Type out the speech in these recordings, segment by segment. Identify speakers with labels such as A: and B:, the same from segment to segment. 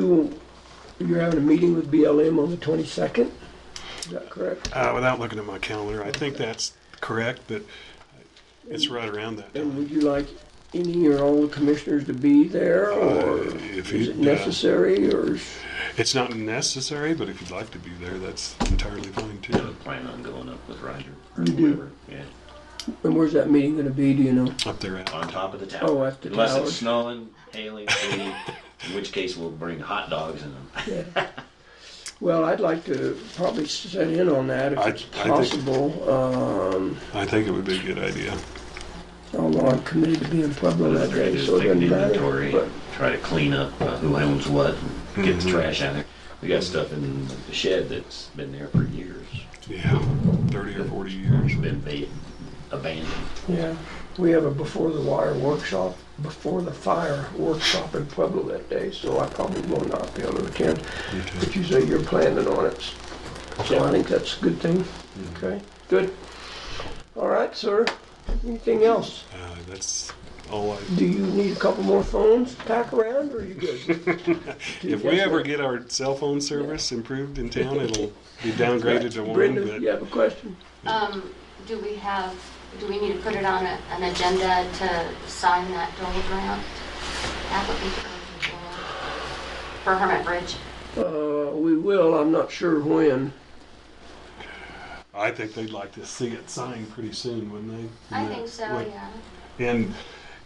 A: You- You're having a meeting with BLM on the 22nd? Is that correct?
B: Uh, without looking at my calendar, I think that's correct, but it's right around that
A: And
B: time.
A: would you like any or all the commissioners to be there, or
B: Uh, if
A: is
B: you-
A: it necessary, or is-
B: It's not necessary, but if you'd like to be there, that's entirely fine
C: Yeah, I
B: too.
C: plan on going up with Roger.
A: You do?
C: Whoever, Yeah,
A: and where's that meeting gonna be, do you know?
B: Up there, uh, out.
C: on top of the tower.
A: Oh, at the
C: Unless
A: tower.
C: it's snowing, hailing, sleeting, in which case we'll bring hot dogs and
A: Well, I'd like to probably set in on that if
B: I-
A: it's
B: I think-
A: possible, um,
B: I think it would be a good idea.
A: although I'm committed to be in Pueblo
C: What I
A: that
C: try to
A: day,
C: do is
A: so it
C: make an
A: doesn't
C: inventory,
A: matter. But Mm-hmm.
C: and try to clean up uh, who owns what, and get the trash out of there. We got stuff in the shed that's been there for years,
B: Yeah, 30 or 40 years.
C: been ba- abandoned.
A: Yeah, we have a before the wire workshop, before the fire workshop in Pueblo that day, so I probably will not be able to attend. But you say you're planning on it, so I think that's a good thing. Okay, good. All right, sir. Anything else?
B: Uh, that's all I.
A: Do you need a couple more phones to pack around, or are you good?
B: If we ever get our cell phone service improved in town, it'll be downgraded to one.
A: Brenda,
B: But
A: you have a question?
D: Um, do we have, do we need to put it on a, an agenda to sign that Dole grant application for Hermit Bridge?
A: Uh, we will, I'm not sure when.
B: I think they'd like to see it signed pretty soon, wouldn't they?
D: I think so,
B: Like,
D: yeah.
B: And,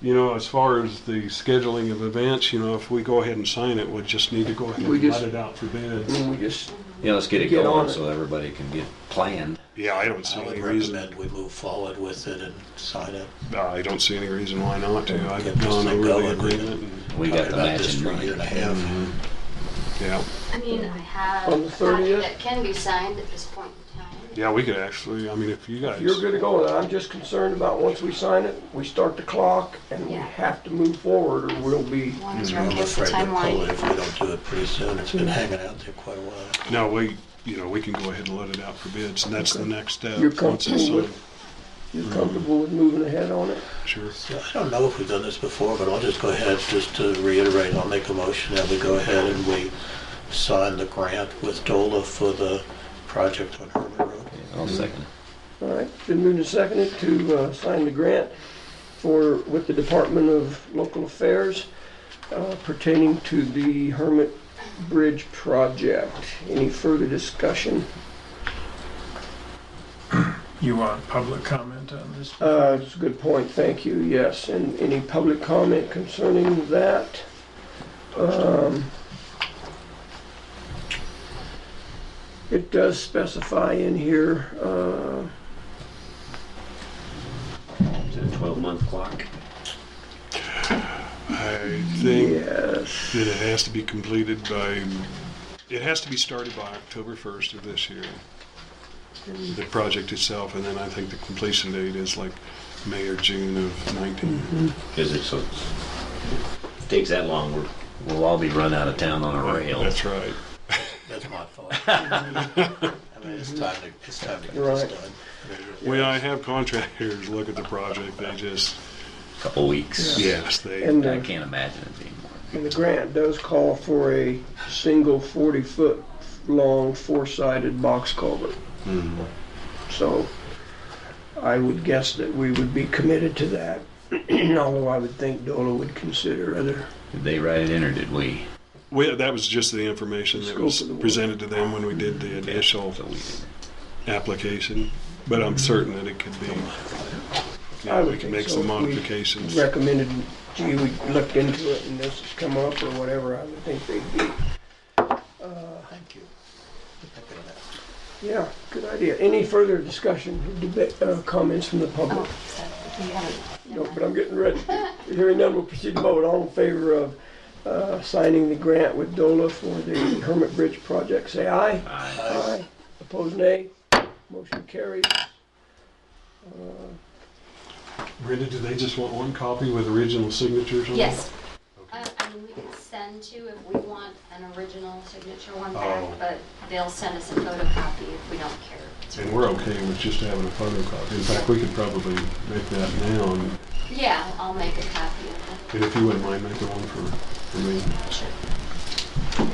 B: you know, as far as the scheduling of events, you know, if we go ahead and sign it, we just need to go ahead
A: We
B: and
A: just-
B: let it out for bids.
A: When we just,
E: Yeah, let's get it
A: Get on
E: going
A: it.
E: so everybody can get planned.
B: Yeah, I don't see
F: I would
B: any reason, uh,
F: recommend we move forward with it and sign it.
B: I don't see any reason why not to. I've
F: Get this
B: gone
F: thing
B: over the
F: going.
B: agreement and, Mm-hmm.
E: We got
F: Talked
E: the
F: about this
E: matching
F: for a year and a
E: money.
F: half.
B: yeah.
D: I mean, I have
A: On the
D: a copy
A: 30th?
D: that can be signed at this point in time.
B: Yeah, we could actually, I mean, if you guys,
A: you're good to go, and I'm just concerned about once we sign it, we start the clock, and we
D: Yeah.
A: have to move forward, or we'll be,
D: As long as we're
F: Mm, I'm
D: against the
F: afraid to pull it if we
D: timeline.
F: don't do it pretty soon. It's
B: Mm-hmm.
F: been hanging out there quite a while.
B: no, we, you know, we can go ahead and let it out for bids and that's the next step.
A: You're
B: once it's uh,
A: comfortable
B: signed.
A: you're comfortable with moving ahead on it?
B: Sure.
F: So I don't know if we've done this before, but I'll just go ahead, just to reiterate, I'll make a motion that we go ahead and we sign the grant with DOLA for the project on Herman Road.
E: I'll second it.
A: All right, been moved and seconded to uh, sign the grant for, with the Department of Local Affairs uh, pertaining to the Hermit Bridge project. Any further discussion?
G: You want public comment on this?
A: Uh, It's a good point, thank you, yes. And any public comment concerning that? Um, It does specify in here, uh,
C: Is it a 12-month clock?
B: I think
A: yes,
B: that it has to be completed by, it has to be started by October first of this year. The project itself, and then I think the completion date is like May or June of nineteen.
A: Mm-hmm.
C: Because it's, so- takes that long, we're
E: We'll all be run out of town on a rail.
B: That's right.
F: That's my fault. I mean, it's time to, it's time to get
A: Right.
F: this done.
B: When I have contractors look at the project, they just,
E: Couple weeks.
B: yes, they.
A: and
E: I
A: uh,
E: can't imagine it being more.
A: And the grant does call for a single 40-foot long four-sided box culvert. So I would guess that we would be committed to that, although I would think DOLA would consider other,
E: Did they write it in or did we?
B: We, that was just the information that
A: Scope
B: was
A: of the work.
B: presented to them when we did the initial
E: So we did.
B: application, but I'm certain that it could be.
A: I
B: Yeah,
A: would
B: we can
A: think
B: make
A: so.
B: some
A: We-
B: modifications.
A: recommended, gee, we looked into it and this has come up or whatever, I would think they'd be,
F: Thank you.
A: yeah, good idea. Any further discussion, debate, uh, comments from the public?
D: Oh, so you haven't.
A: No, but I'm getting ready. Hearing none, we'll proceed to vote. All in favor of uh, signing the grant with DOLA for the Hermit Bridge project, say aye. Aye. Opposed, nay. Motion carries.
B: Brenda, do they just want one copy with original signatures on it?
D: Yes. I, I mean, we can send two if we want an original signature one back,
B: Oh.
D: but they'll send us a photocopy if we don't care.
B: And we're okay with just having a photocopy. In fact, we could probably make that now, and
D: Yeah, I'll make a copy of
B: and if you wouldn't mind making one for, for me.
D: it. Sure.